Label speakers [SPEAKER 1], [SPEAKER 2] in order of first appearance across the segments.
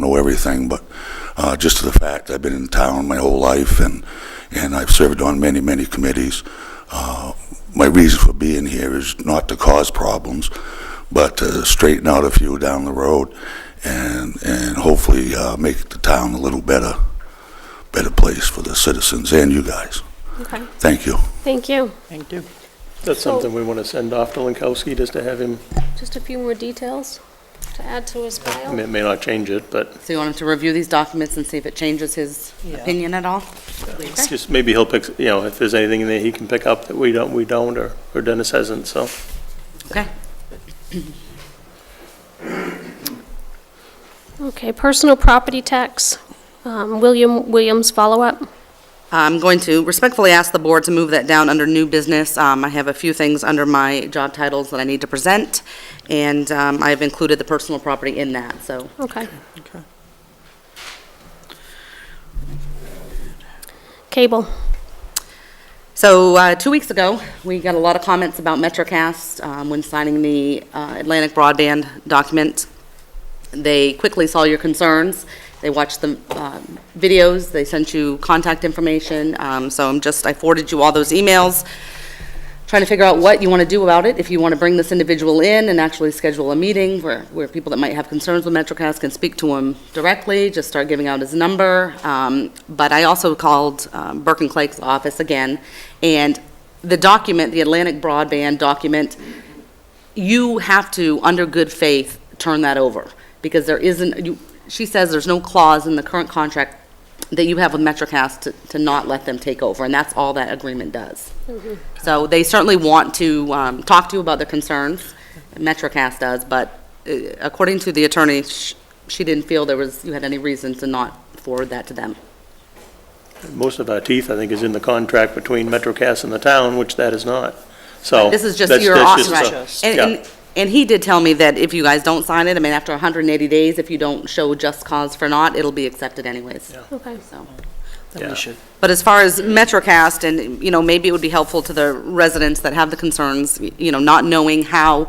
[SPEAKER 1] know everything, but uh, just to the fact I've been in town my whole life and, and I've served on many, many committees. Uh, My reason for being here is not to cause problems, but to straighten out a few down the road and, and hopefully uh, make the town a little better, better place for the citizens and you guys.
[SPEAKER 2] Okay,
[SPEAKER 1] Thank you.
[SPEAKER 2] thank you.
[SPEAKER 3] Thank you. That's
[SPEAKER 2] So-
[SPEAKER 3] something we want to send off to Lankowski, just to have him,
[SPEAKER 2] Just a few more details to add to his
[SPEAKER 3] I
[SPEAKER 2] file.
[SPEAKER 3] mean, it may not change it, but
[SPEAKER 4] So you want him to review these documents and see if it changes his opinion at all?
[SPEAKER 3] it's just maybe he'll pick, you know, if there's anything in there he can pick up that we don't, we don't, or or Dennis hasn't, so.
[SPEAKER 4] Okay.
[SPEAKER 2] Okay, personal property tax, um, William Williams follow-up.
[SPEAKER 4] I'm going to respectfully ask the board to move that down under new business. Um, I have a few things under my job titles that I need to present, and um, I've included the personal property in that, so.
[SPEAKER 2] Okay. Cable.
[SPEAKER 4] So, uh, two weeks ago, we got a lot of comments about MetroCast um, when signing the uh, Atlantic broadband document. They quickly saw your concerns, they watched the um, videos, they sent you contact information, Um, so I'm just, I forwarded you all those emails, trying to figure out what you want to do about it, if you want to bring this individual in and actually schedule a meeting where, where people that might have concerns with MetroCast can speak to him directly, just start giving out his number. Um, But I also called um, Burke and Clake's office again, and the document, the Atlantic broadband document, you have to, under good faith, turn that over, because there isn't, you, she says there's no clause in the current contract that you have with MetroCast to, to not let them take over, and that's all that agreement does. So they certainly want to, um, talk to you about their concerns, MetroCast does, but uh, according to the attorney, sh- she didn't feel there was, you had any reason to not forward that to them.
[SPEAKER 3] Most of our teeth, I think, is in the contract between MetroCast and the town, which that is not, so.
[SPEAKER 4] This is just
[SPEAKER 3] that's-
[SPEAKER 4] your,
[SPEAKER 3] that's
[SPEAKER 4] op-
[SPEAKER 3] just
[SPEAKER 4] right.
[SPEAKER 3] a-
[SPEAKER 4] And-
[SPEAKER 3] yeah.
[SPEAKER 4] And, and he did tell me that if you guys don't sign it, I mean, after 180 days, if you don't show just cause for not, it'll be accepted anyways,
[SPEAKER 2] Okay.
[SPEAKER 4] so.
[SPEAKER 5] Then
[SPEAKER 3] Yeah.
[SPEAKER 5] we should,
[SPEAKER 4] But as far as MetroCast, and, you know, maybe it would be helpful to the residents that have the concerns, you know, not knowing how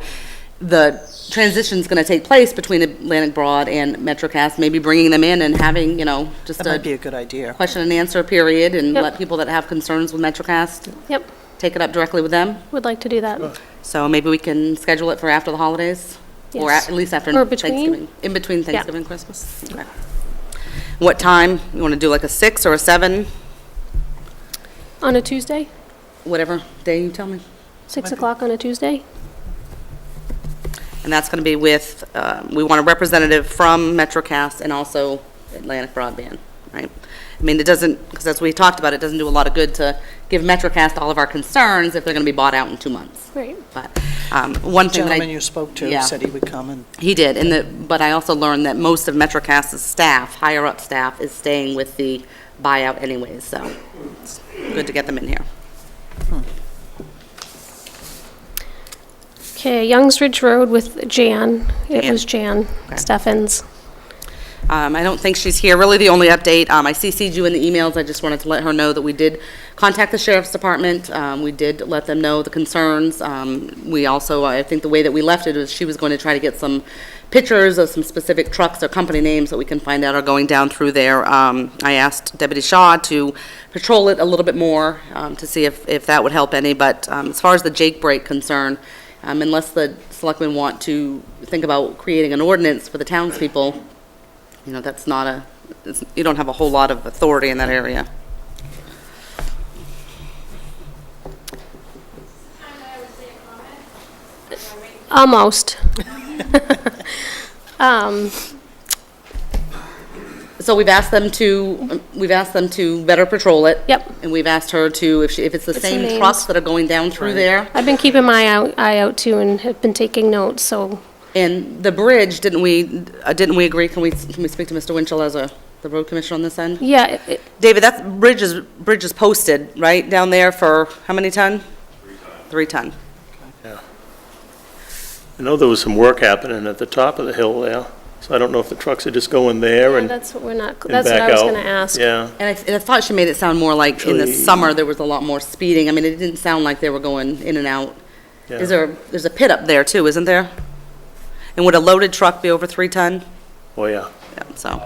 [SPEAKER 4] the transition's going to take place between Atlantic Broad and MetroCast, maybe bringing them in and having, you know, just
[SPEAKER 5] that might be a
[SPEAKER 4] a
[SPEAKER 5] good idea.
[SPEAKER 4] question and answer period, and
[SPEAKER 2] Yep.
[SPEAKER 4] let people that have concerns with MetroCast
[SPEAKER 2] Yep,
[SPEAKER 4] take it up directly with them.
[SPEAKER 2] would like to do that.
[SPEAKER 4] So maybe we can schedule it for after the holidays? Or
[SPEAKER 2] Yes.
[SPEAKER 4] at at least after
[SPEAKER 2] Or between.
[SPEAKER 4] Thanksgiving? In between Thanksgiving and Christmas? Okay. What time? You want to do like a 6 or a 7,
[SPEAKER 2] On a Tuesday,
[SPEAKER 4] whatever day you tell me?
[SPEAKER 2] 6 o'clock on a Tuesday?
[SPEAKER 4] And that's going to be with, um, we want a representative from MetroCast and also Atlantic Broadband, right? I mean, it doesn't, because as we talked about, it doesn't do a lot of good to give MetroCast all of our concerns if they're going to be bought out in two months.
[SPEAKER 2] Great.
[SPEAKER 4] But um, one
[SPEAKER 5] The
[SPEAKER 4] thing that I...
[SPEAKER 5] Gentleman you spoke to
[SPEAKER 4] Yeah.
[SPEAKER 5] said he would come and
[SPEAKER 4] He did, and the, but I also learned that most of MetroCast's staff, higher-up staff, is staying with the buyout anyways, so it's good to get them in here.
[SPEAKER 2] Okay, Youngs Ridge Road with Jan. It was Jan Steffens.
[SPEAKER 4] Um, I don't think she's here, really the only update, um, I CC'd you in the emails, I just wanted to let her know that we did contact the sheriff's department, um, we did let them know the concerns, um, we also, I think the way that we left it was she was going to try to get some pictures of some specific trucks or company names that we can find out are going down through there. Um, I asked Deputy Shaw to patrol it a little bit more, um, to see if, if that would help any, but, um, as far as the Jake break concern, um, unless the selectmen want to think about creating an ordinance for the townspeople, you know, that's not a, it's- you don't have a whole lot of authority in that area.
[SPEAKER 2] Almost. Um,
[SPEAKER 4] So we've asked them to, we've asked them to better patrol it.
[SPEAKER 2] Yep.
[SPEAKER 4] And we've asked her to, if she, if it's the
[SPEAKER 2] It's the
[SPEAKER 4] same
[SPEAKER 2] names.
[SPEAKER 4] trucks that are going down through there.
[SPEAKER 2] I've been keeping my eye- eye out too and have been taking notes, so
[SPEAKER 4] And the bridge, didn't we, uh, didn't we agree, can we, can we speak to Mr. Winchell as a, the road commissioner on this end?
[SPEAKER 2] yeah, it- it-
[SPEAKER 4] David, that bridge is, bridge is posted, right, down there for how many ton? Three ton.
[SPEAKER 3] I know there was some work happening at the top of the hill there, so I don't know if the trucks are just going there and and
[SPEAKER 2] that's what we're not,
[SPEAKER 3] back out.
[SPEAKER 2] that's what I was going to ask.
[SPEAKER 3] Yeah.
[SPEAKER 4] And I, and I thought she made it sound more like in the
[SPEAKER 3] Actually-
[SPEAKER 4] summer, there was a lot more speeding. I mean, it didn't sound like they were going in and out.
[SPEAKER 3] Yeah.
[SPEAKER 4] Is there, there's a pit up there too, isn't there? And would a loaded truck be over three ton?
[SPEAKER 3] Oh, yeah.
[SPEAKER 4] Yeah, So.